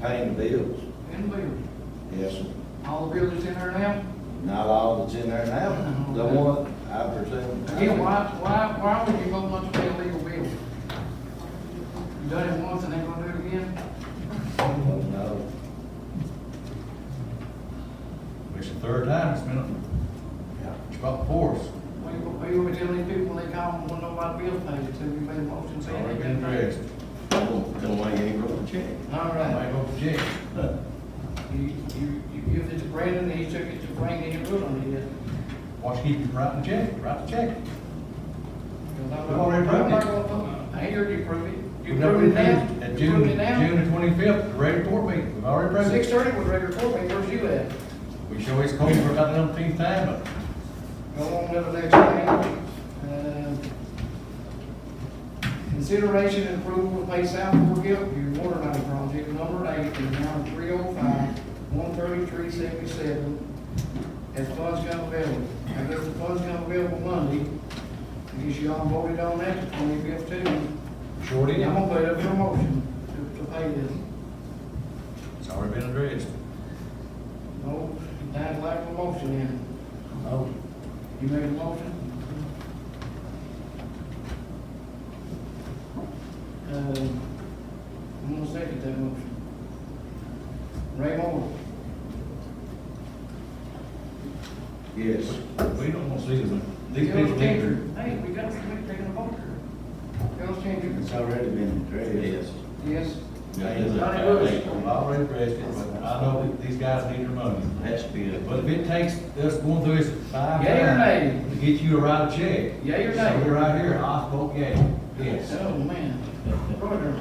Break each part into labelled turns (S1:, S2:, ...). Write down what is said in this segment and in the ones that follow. S1: paying the bills.
S2: and bills.
S1: Yes, sir.
S2: All the buildings in there now?
S1: Not all that's in there now, the one, I presume.
S2: Again, why, why, why would you go much pay illegal bills? You done it once and they gonna do it again?
S1: Oh, No,
S3: It's the third time it's been, up.
S1: yeah,
S3: it's about four.
S2: What you, what you gonna tell these people when they call and want to know why the bill paid, so you made a motion
S3: It's
S2: saying they
S3: already been
S2: got paid?
S3: addressed.
S4: Don't want any broken check.
S2: All
S3: I
S2: right,
S3: might go for check.
S2: you, you, you give it to Brandon, and he took it to Frank, and he put on it.
S3: Watch keep you writing the check, write the check.
S2: We've
S3: We've already approved it.
S2: I heard you prove it. You
S3: We've never
S2: prove it now?
S3: approved it At
S2: You
S3: June,
S2: prove it now?
S3: June the twenty-fifth, the regular court meeting, we've already approved
S2: Six
S3: it.
S2: thirty was regular court meeting, where's you at?
S3: We show his court for about the umpteenth time,
S2: Go on to the next thing. Uh, Consideration and approval of pay South Fork Gulfview Water Line Project Number Eight in the amount of three oh five, one thirty-three seventy-seven as funds come available. I guess the funds come available Monday. I guess you all voted on that, the twenty-fifth too.
S3: but short
S2: I'm
S3: end,
S2: gonna put up for a motion to, to pay this.
S3: it's already been addressed.
S2: No, that's like a motion in.
S1: no,
S2: You made a motion? Um, I'm gonna second that motion. Ray Moore,
S1: yes.
S3: We don't want to see them, these
S2: Carol
S3: people need to.
S2: Changer. Hey, we got somebody taking a voter. Carol Changer,
S1: It's already been addressed.
S2: yes. Johnny Bush.
S4: That's
S3: We've already addressed it, but I know that these guys need their money.
S4: been,
S3: But if it takes us going through this five
S2: Yay or
S3: times to get you to write a check.
S2: Yay or
S3: So
S2: nay?
S3: we're right here, I vote yay, yes.
S2: Oh, man. Order.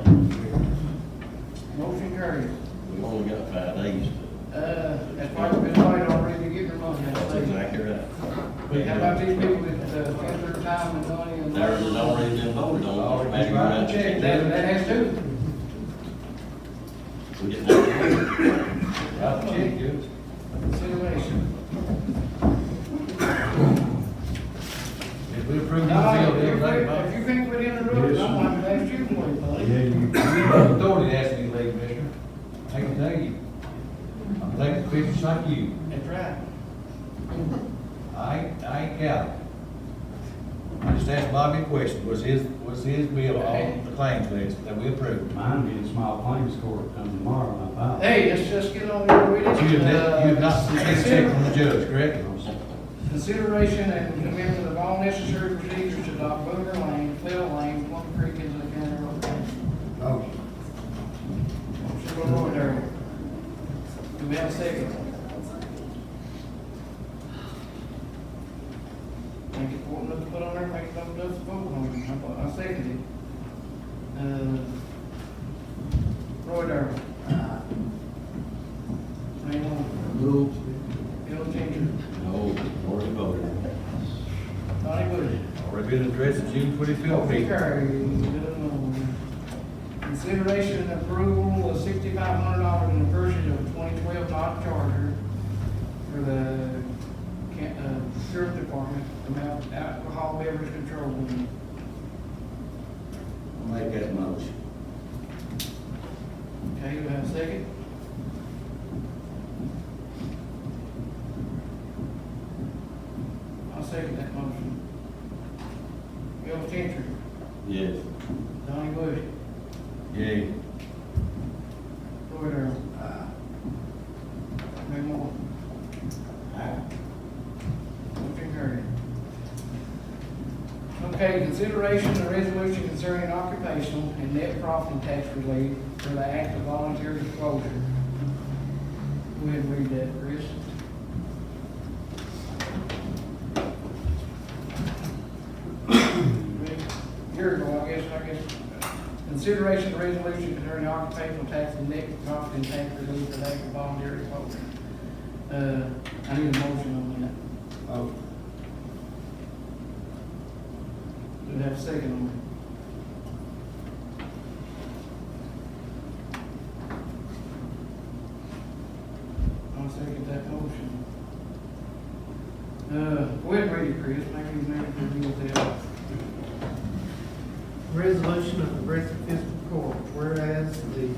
S2: Motion carries.
S4: we've only got five days.
S2: Uh, that's why we've been fighting already to get your money. I
S4: That's
S2: think.
S4: exactly right.
S2: How about these people that, uh, spend their time and money and.
S4: There is already been voted on.
S3: Already write a check.
S2: That, that has to.
S4: We didn't have to.
S3: Write a check, yes.
S2: Consideration.
S3: If we approve the bill,
S2: Now, if
S3: everything,
S2: you,
S3: but
S2: if you can't put in the rules, I'm gonna ask you one, buddy.
S3: authority to ask me to leave, mister. I can tell you. I'm taking pictures like you.
S2: That's right.
S3: I, ain't- I ain't counting. I just asked Bobby a question, was his, was his bill on the claims list that we approved?
S5: Mine being small claims court come tomorrow, I thought.
S2: Hey, let's just get on with it.
S3: You have not, you have not
S2: Uh,
S3: received a check from the judge, correct?
S2: Consideration and commitment of all necessary procedures to adopt Boomer Lane, Clell Lane, Plum Creek, and the County Road. Motion by Roy Darrell. Do we have a second? Make it important enough to put on there, make it up to us, vote on it, I thought- I seconded it. Uh, Roy Darrell. Ray Moore. Bill Changer.
S4: No, already voted.
S2: Donnie Bush.
S3: Already been addressed at June twenty-fifth
S2: Okay,
S3: meeting.
S2: Consideration and approval of sixty-five hundred dollars in the purchase of a twenty-twelve Dodge Charger for the, can- uh, sheriff department, amount alcohol beverage control unit.
S1: I'll Make that motion.
S2: Okay, you have a second? I'll second that motion. Bill Changer,
S4: Yes.
S2: Donnie Bush,
S3: Yay.
S2: Roy Darrell,
S1: Aye.
S2: Ray Moore.
S1: Aye.
S2: Motion carried. Okay, consideration of resolution concerning occupational and net profit and tax relief for the act of voluntary disclosure. Go ahead and read that, Chris. Here, well, I guess, I guess, consideration of resolution concerning occupational tax and net profit and tax relief for the act of voluntary disclosure. Uh, I need a motion on that.
S1: Oh,
S2: Do we have a second on it? I'll second that motion. Uh, go ahead and read it, Chris, maybe you may have to deal with that.
S6: Resolution